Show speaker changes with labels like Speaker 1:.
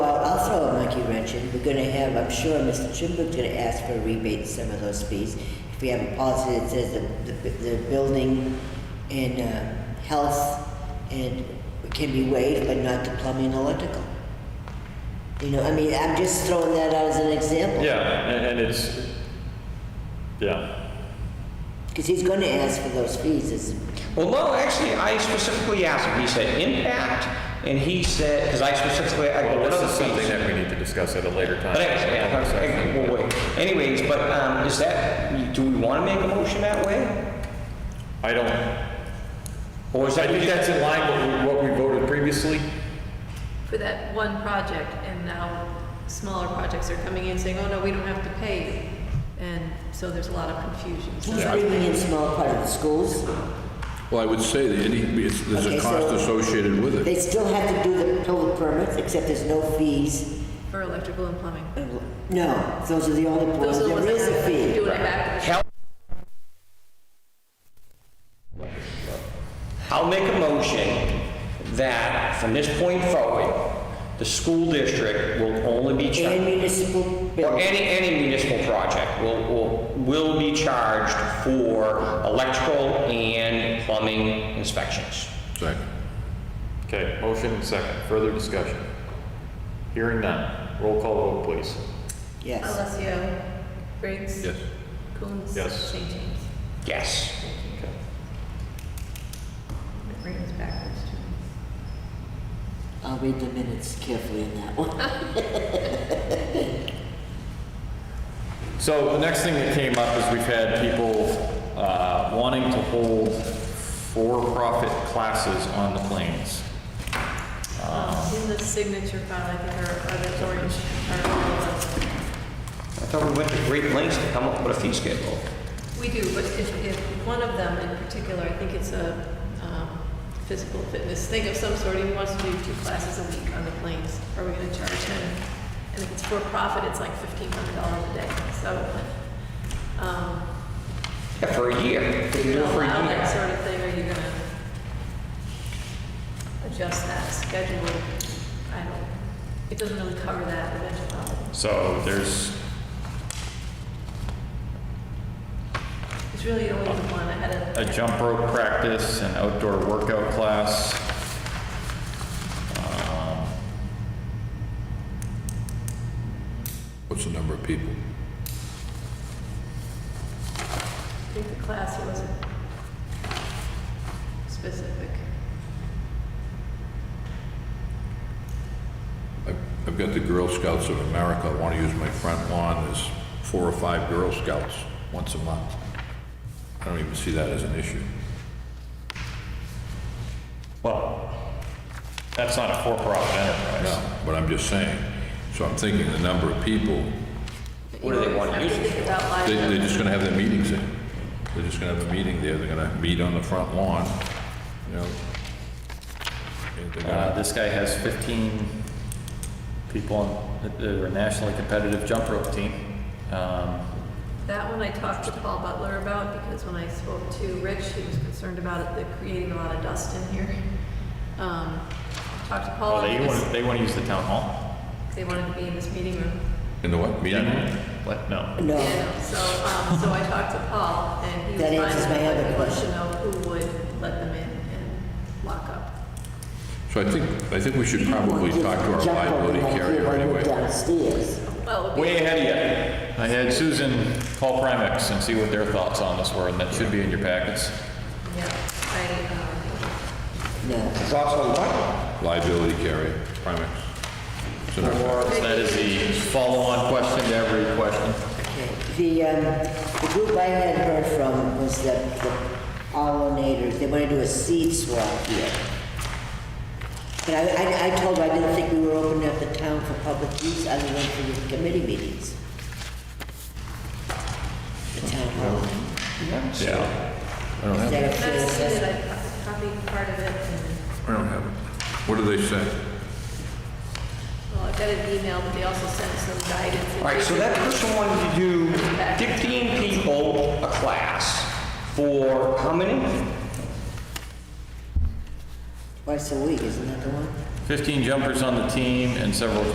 Speaker 1: We're gonna have, I'm sure Mr. Trimber's gonna ask for a rebate to some of those fees. If we have a policy that says the, the, the building and, uh, health and can be waived, but not the plumbing and electrical. You know, I mean, I'm just throwing that out as an example.
Speaker 2: Yeah, and, and it's, yeah,
Speaker 1: Cause he's gonna ask for those fees, is,
Speaker 3: Well, no, actually, I specifically asked him. He said impact, and he said, because I specifically, I go,
Speaker 2: well,
Speaker 3: what
Speaker 2: this
Speaker 3: other
Speaker 2: is something
Speaker 3: fees?
Speaker 2: that we need to discuss at a later time.
Speaker 3: But anyway, yeah, okay, we'll wait. Anyways, but um, is that, do we want to make a motion that way?
Speaker 2: I don't,
Speaker 3: Or is
Speaker 2: I
Speaker 3: that?
Speaker 2: think that's in line with what we voted previously.
Speaker 4: for that one project, and now smaller projects are coming in saying, oh, no, we don't have to pay. And so there's a lot of confusion. So
Speaker 1: he's bringing in small part of the schools.
Speaker 5: Well, I would say that any, it's, there's
Speaker 1: Okay,
Speaker 5: a
Speaker 1: so-
Speaker 5: cost associated with it.
Speaker 1: They still have to do the total permits, except there's no fees.
Speaker 4: For electrical and plumbing.
Speaker 1: No, those are the only ones,
Speaker 4: Those are the
Speaker 1: there
Speaker 4: ones
Speaker 1: is a
Speaker 4: that have to
Speaker 1: fee.
Speaker 4: do it back.
Speaker 3: Hell. I'll make a motion that from this point forward, the school district will only be
Speaker 1: And
Speaker 3: charged,
Speaker 1: municipal
Speaker 3: or
Speaker 1: buildings.
Speaker 3: any, any municipal project will, will, will be charged for electrical and plumbing inspections.
Speaker 5: Second.
Speaker 2: Okay, motion and second, further discussion. Hearing none, roll call vote, please.
Speaker 1: Yes,
Speaker 4: Alessio, Briggs.
Speaker 5: Yes.
Speaker 4: Coombs.
Speaker 2: Yes.
Speaker 4: St. James.
Speaker 3: Yes.
Speaker 2: Okay.
Speaker 4: It brings backwards to
Speaker 1: I'll read the minutes carefully in that one.
Speaker 2: So the next thing that came up is we've had people uh, wanting to hold for-profit classes on the plains.
Speaker 1: Ah.
Speaker 4: Um, In the signature file, I think, are, are the orange, are the ones.
Speaker 3: I thought we went to great lengths to come up with a fee schedule.
Speaker 4: We do, but if, if one of them in particular, I think it's a um, physical fitness thing of some sort, he wants to do two classes a week on the planes. Are we gonna charge him? And if it's for profit, it's like fifteen hundred dollars a day, so, um,
Speaker 3: Yeah, for a year. They
Speaker 4: do
Speaker 3: can
Speaker 4: you
Speaker 3: do it for a
Speaker 4: allow
Speaker 3: year.
Speaker 4: that sort of thing, or are you gonna adjust that schedule? I don't, it doesn't really cover that eventuality.
Speaker 2: So there's,
Speaker 4: It's really only the one I had a.
Speaker 2: a jump rope practice, an outdoor workout class. Um,
Speaker 5: What's the number of people?
Speaker 4: I think the class wasn't specific.
Speaker 5: I've, I've got the Girl Scouts of America. I want to use my front lawn as four or five Girl Scouts once a month. I don't even see that as an issue.
Speaker 2: Well, that's not a for-profit enterprise.
Speaker 5: No, but I'm just saying. So I'm thinking the number of people,
Speaker 3: What do they want to
Speaker 4: I
Speaker 3: use it
Speaker 4: think about
Speaker 5: they, they're
Speaker 4: liability.
Speaker 5: just going to have their meetings there. They're just going to have a meeting there. They're going to meet on the front lawn, you know. And they're
Speaker 2: Uh,
Speaker 5: gonna-
Speaker 2: This guy has 15 people on, that are a nationally competitive jump rope team. Um,
Speaker 4: That one I talked to Paul Butler about because when I spoke to Rich, he was concerned about it, the creating a lot of dust in here. Um, Talked to Paul.
Speaker 2: Oh, they
Speaker 4: because
Speaker 2: want, they want to use the town hall?
Speaker 4: They wanted to be in this meeting room.
Speaker 5: In the what, meeting? room?
Speaker 2: What? No.
Speaker 1: No,
Speaker 4: Yeah, so, um, so I talked to Paul and he was
Speaker 1: That
Speaker 4: fine.
Speaker 1: answers my
Speaker 4: with it,
Speaker 1: other
Speaker 4: but he wants to
Speaker 1: question.
Speaker 4: know who would let them in and lock up.
Speaker 5: So I think, I think we should probably talk to our
Speaker 1: Jump over
Speaker 5: liability
Speaker 1: like here
Speaker 5: carrier
Speaker 1: when we're
Speaker 5: anyway.
Speaker 1: Downstairs.
Speaker 4: Well, it would be.
Speaker 2: Way ahead of you. I had Susan call Primex and see what their thoughts on this were, and that should be in your packets.
Speaker 4: Yeah, I, um,
Speaker 1: No,
Speaker 3: It's also what?
Speaker 5: Liability carrier, Primex. It's in our
Speaker 2: So that is the follow-on question to every question.
Speaker 1: okay. The, um, the group I had heard from was the, the pollinators, they wanna do a seed swap here. But I, I, I told her I didn't think we were opening up the town for public use other than for the committee meetings. The town hall.
Speaker 2: Yeah.
Speaker 1: Is that a fair
Speaker 4: That's
Speaker 1: assessment?
Speaker 4: it, I copied part of it, and,
Speaker 5: I don't have it. What do they say?
Speaker 4: well, I got an email, but they also sent some guidance.
Speaker 3: All right, so that person wanted to do 15 people a class for how many?
Speaker 1: Twice a week, isn't that the one?
Speaker 2: 15 jumpers on the team and several